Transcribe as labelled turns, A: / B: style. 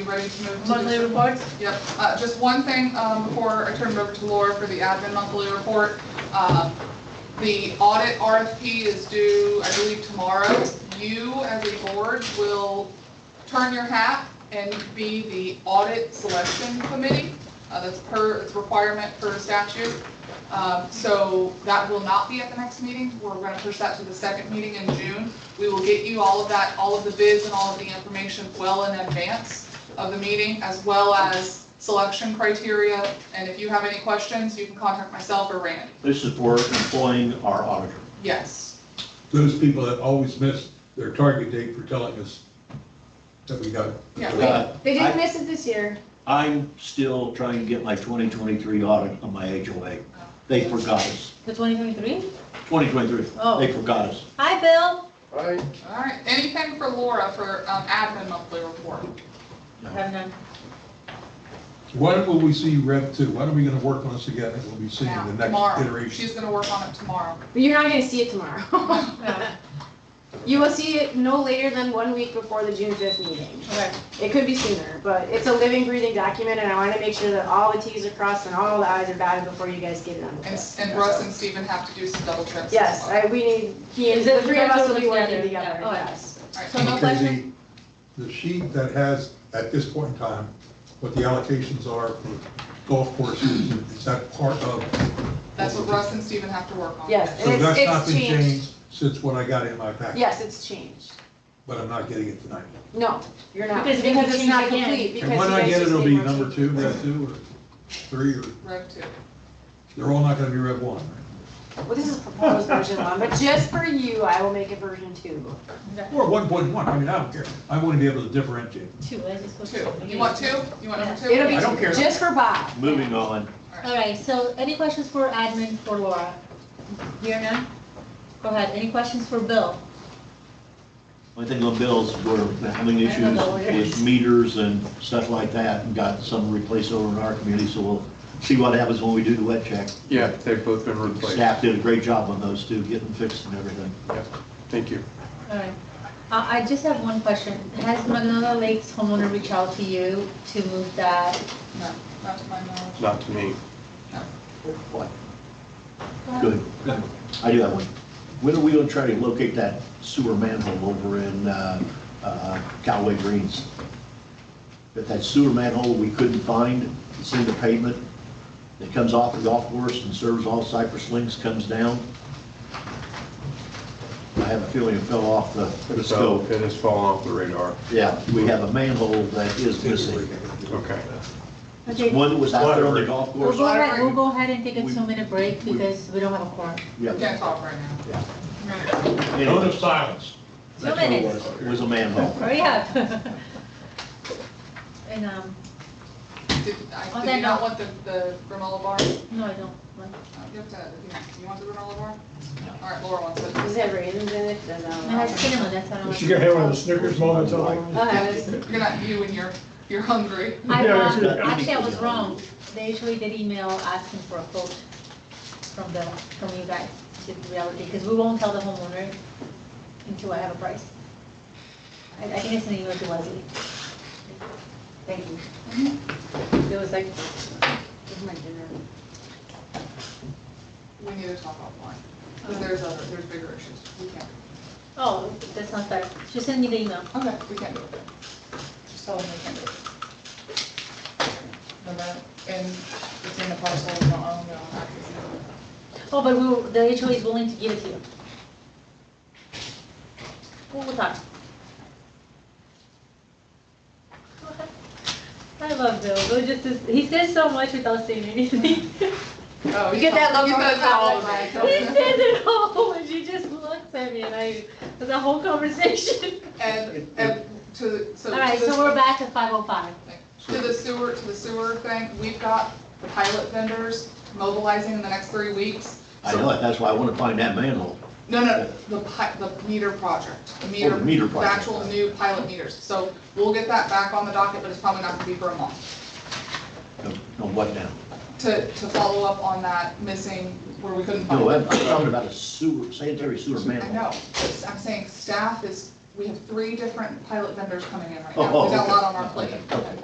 A: You ready to move to?
B: Monthly reports?
A: Yep, uh, just one thing, um, before I turn it over to Laura for the admin monthly report. Um, the audit RFP is due, I believe, tomorrow. You, as a board, will turn your hat and be the audit selection committee. Uh, that's per, it's requirement per statute. Um, so that will not be at the next meeting. We're gonna push that to the second meeting in June. We will get you all of that, all of the bids and all of the information well in advance of the meeting, as well as selection criteria. And if you have any questions, you can contact myself or Randy.
C: This is for employing our auditor.
A: Yes,
D: those people that always miss their target date for telling us that we got it.
A: yeah. we-
C: Uh,
B: They
C: I-
B: didn't miss it this year.
C: I'm still trying to get my 2023 audit on my HOA. They forgot us.
E: The 2023?
C: 2023,
E: Oh.
C: they forgot us.
E: Hi, Bill.
F: Right,
A: All right, anything for Laura for um, admin monthly report?
E: Have none.
D: When will we see Rev two? When are we gonna work on this again? And we'll be seeing
A: Now,
D: the next
A: tomorrow.
D: iteration.
A: She's gonna work on it tomorrow.
B: But you're not gonna see it tomorrow. You will see it no later than one week before the June fifth meeting.
E: Okay.
B: It could be sooner, but it's a living, breathing document, and I wanna make sure that all the Ts are crossed and all the Is are dotted before you guys get it on the
A: And
B: fifth.
A: and Russ and Steven have to do some double checks. as
B: Yes,
A: well.
B: I, we need, he and,
E: Is it
B: the three of us will be working
E: together?
B: together,
E: Yeah. Oh, yeah.
B: yes.
A: All right, so no
D: Okay,
A: question?
D: the, the sheet that has, at this point in time, what the allocations are for golf courses, is that part of?
A: That's what Russ and Steven have to work on.
B: Yes.
D: So
B: It's-
D: that's
B: it's
D: not been
B: changed.
D: changed since what I got in my packet?
B: Yes, it's changed.
D: But I'm not getting it tonight.
B: No, you're not,
E: Because if
B: because
E: you
B: it's
E: change
B: not
E: again-
B: complete, because
D: And
B: you
D: when I
B: guys
D: get it,
B: just
D: it'll
B: made
D: be
B: more
D: number
B: changes.
D: two, Rev two, or three, or,
A: Rev two.
D: they're all not gonna be Rev one, right?
B: Well, this is proposed version one, but just for you, I will make a version two.
D: Or one point one, I mean, I don't care, I want to be able to differentiate.
E: Two, I just go to.
A: Two. You want two? You want number two?
B: It'll be
C: I don't care.
B: just for Bob.
C: Moving on,
E: All right, so any questions for admin for Laura? Here none? Go ahead. Any questions for Bill?
C: one thing on bills, we're having issues with meters and stuff like that, and got some replaced over in our community, so we'll see what happens when we do the wet check.
F: yeah, they've both been replaced.
C: Staff did a great job on those too, getting fixed and everything.
F: Thank you.
E: All right. Uh, I just have one question. Has Magnolia Lakes homeowner reached out to you to move that?
A: No, not to my knowledge.
F: Not to me.
C: Good. I do have one. When are we gonna try to locate that sewer manhole over in uh, uh, Callaway Greens? That that sewer manhole we couldn't find, it's in the pavement. It comes off the golf course and serves all Cypress Links, comes down. I have a feeling it fell off the the
F: So
C: scope.
F: it has fallen off the radar.
C: Yeah, we have a manhole that is missing.
F: Okay.
E: Okay, we'll
C: One that was out there on the golf course.
E: go ahead, we'll go ahead and take a
C: We-
E: two-minute break
C: we-
E: because we don't have a quorum.
C: Yeah.
A: We can't talk right now.
C: Anyway,
D: silence.
E: Two
C: that's what it
E: minutes.
C: was. It was a manhole.
E: Hurry up. And, um,
A: Did, I,
E: On
A: did
E: that
A: you not
E: note-
A: want the, the granola bar?
E: no, I don't. want-
A: Uh, You have to, you want the granola bar?
C: No.
A: All right, Laura wants it.
B: Does it have raisins in it? Does
E: It
B: um, not
E: has cinnamon, that's what I want.
G: She gonna have one of the Snickers moments, I like.
B: I'll have it.
A: You're not you when you're, you're hungry.
E: I,
G: Yeah,
E: um,
C: it's-
E: actually, I was wrong. They usually did email asking for a quote from the, from you guys, to the reality, because we won't tell the homeowner until I have a price. I, I think it's an email to Leslie. Thank you.
B: It was like, with my dinner.
A: We need to talk offline, because there's other, there's bigger issues. We can't.
E: Oh, that's not fair. She sent me the email.
A: Okay, we can't do it then. Just tell them we can't do it. And that, and it's in the parcel, so I don't know how to see it.
E: Oh, but we, will- the HOA is willing to give it to you. Well, we'll talk. I love Bill. Bill just, is- he says so much without saying anything.
A: Oh,
B: You get that look
A: you
B: on
A: said
B: the
A: that all
B: side, like,
A: over.
E: He says it all, and she just looks at me, and I, there's a whole conversation.
A: And, and to, so.
E: All right,
A: to
E: so
A: the-
E: we're back at five oh five.
A: To the sewer, to the sewer thing, we've got the pilot vendors mobilizing in the next three weeks.
C: I know it, that's why I want to find that manhole.
A: No, no, the pi, the meter project, the meter.
C: Oh, the meter project.
A: The actual new pilot meters. So we'll get that back on the docket, but it's probably not gonna be for a month.
C: No, no, what now?
A: To, to follow up on that missing where we couldn't find
C: No, I'm
A: it.
C: I'm talking about a sewer, sanitary sewer
A: I
C: manhole.
A: know, It's- I'm saying staff is,
C: Oh,
A: we have three different pilot vendors coming in right now. We've got a lot on our plate.